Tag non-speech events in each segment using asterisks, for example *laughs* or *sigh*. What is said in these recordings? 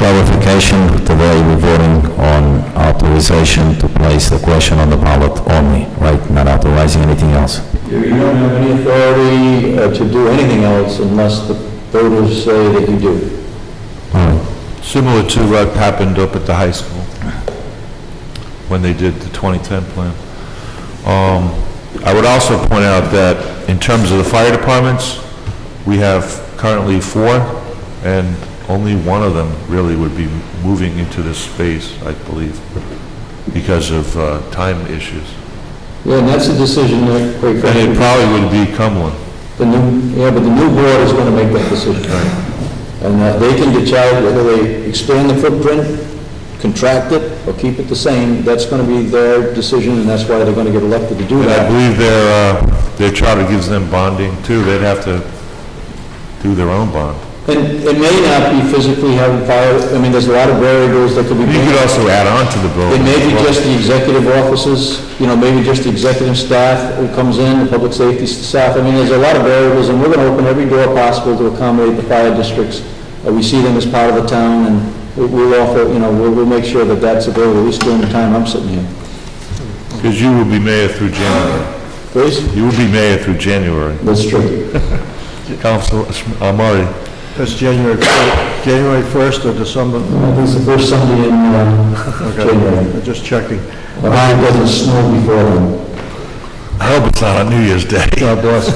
session. Today, we're voting on authorization to place the question on the ballot only, right? Not authorizing anything else. You don't have any authority uh, to do anything else unless the voters say that you do. All right. Similar to what happened up at the high school when they did the 2010 plan. Um, I would also point out that in terms of the fire departments, we have currently four, and only one of them really would be moving into this space, I believe, because of uh, time issues. Yeah, and that's a decision that, quite And it frankly, probably would be Cumberland. the new, yeah, but the new board is going to make that decision. And uh, they can decide whether they expand the footprint, contract it, or keep it the same. That's going to be their decision, and that's why they're going to get elected to do And I that. believe their, uh, their charter gives them bonding too. They'd have to do their own bond. And it may not be physically having fire, I mean, there's a lot of variables that could be... You could also add on to the It building. may be just the executive offices, you know, maybe just the executive staff who comes in, the public safety staff. I mean, there's a lot of variables, and we're going to open every door possible to accommodate the fire districts. Uh, We see them as part of the town, and we- we'll offer, you know, we'll, we'll make sure that that's available, at least during the time I'm sitting here. Because you will be mayor through January. Please? You will be mayor through January. That's true. Council, uh, Marty, That's January, fir- January 1st or December, I think it's the first Sunday in, uh, January. I'm just checking. But I hope it doesn't snow before then. I hope it's not on New Year's Day. *laughs* God bless.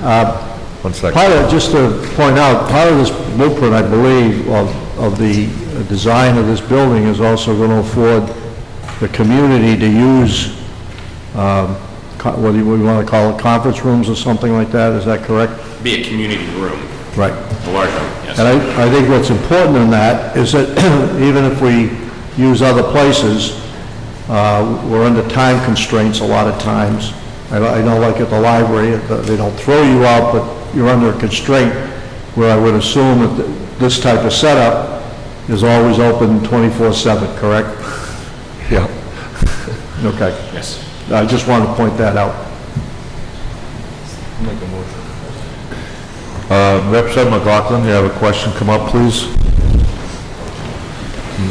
One second. Part of, just to point out, part of this blueprint, I believe, of, of the design of this building is also going to afford the community to use, um, co- whether we want to call it conference rooms or something like that, is that correct? be a community room, Right. a large room, yes. And I, I think what's important in that is that *clears throat* even if we use other places, uh, we're under time constraints a lot of times. I I know like at the library, uh, they don't throw you out, but you're under a constraint where I would assume that th- this type of setup is always open 24/7, correct? Yeah. Okay. Yes. I just wanted to point that out. Uh, Representative McLaughlin, you have a question, come up, please. Hmm.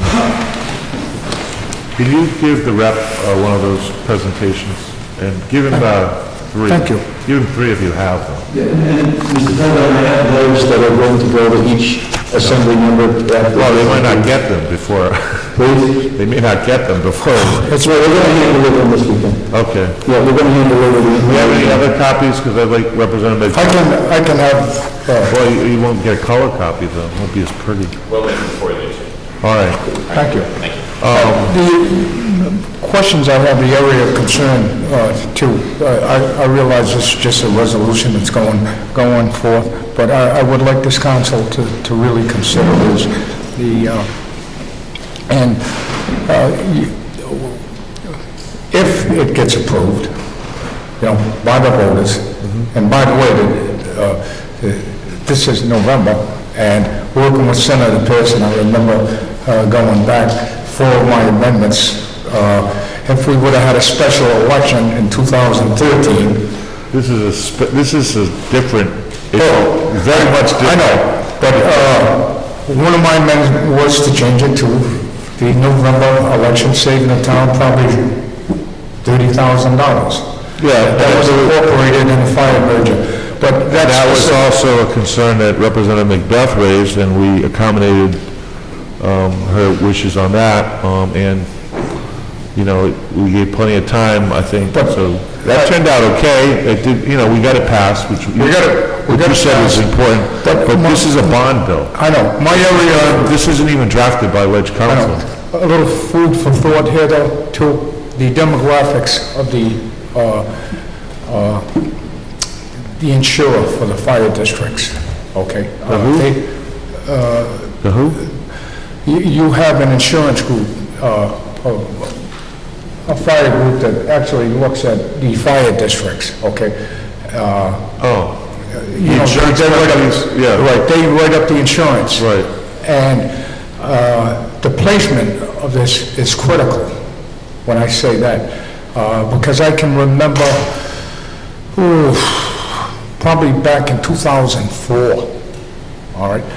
Can you give the rep uh, one of those presentations? And give him uh, three. Thank you. Give him three if you have them. Yeah, and, Mr. President, I have those that are going to go to each assembly member after... Well, they might not get them before, *laughs* Please? they may not get them before. That's right, we're going to hand deliver them this weekend. Okay. Yeah, we're going to hand deliver them. Do you have any other copies? Because I'd like Representative... I can, I can have... uh, Well, you- you won't get a color copy, though. It won't be as pretty. Well, then, before they do. All right. Thank you. Uh, The questions I have, the area of concern, uh, too, Uh, I I realize this is just a resolution that's going, going forth, but I I would like this council to to really consider is the, uh, and uh, you- if it gets approved, you know, by the voters, and by the way, the, uh, this is November, and working with Senator Pearson, I remember uh, going back for my amendments, uh, if we would have had a special election in 2013, This is a, sp- this is a different, Oh, it's very much I different. know, but uh, one of my amendments was to change it to the November election, saving the town probably $30,000. Yeah, That was incorporated in the fire merger, but that's... That was also a concern that Representative Macbeth raised, and we accommodated um, her wishes on that. Um, And, you know, we gave plenty of time, I think, But- so that turned out okay. It did, you know, we got it passed, which you- We got it- we which got you it said was passed. important. But But my- Oh, this is a bond bill. I know, my Uh, area, This isn't even drafted by Wedge I Council. know, a little food for thought here, though, to the demographics of the, uh, uh, the insurer for the fire districts, okay? Uh, they- The who? You you have an insurance group, uh, a a fire group that actually looks at the fire districts, okay? Uh, Oh, you know, Insurance they write up- companies, yeah. Right, they write up the insurance. Right. And uh, the placement of this is critical, when I say that, uh, because I can remember, ooh, probably back in 2004, all right?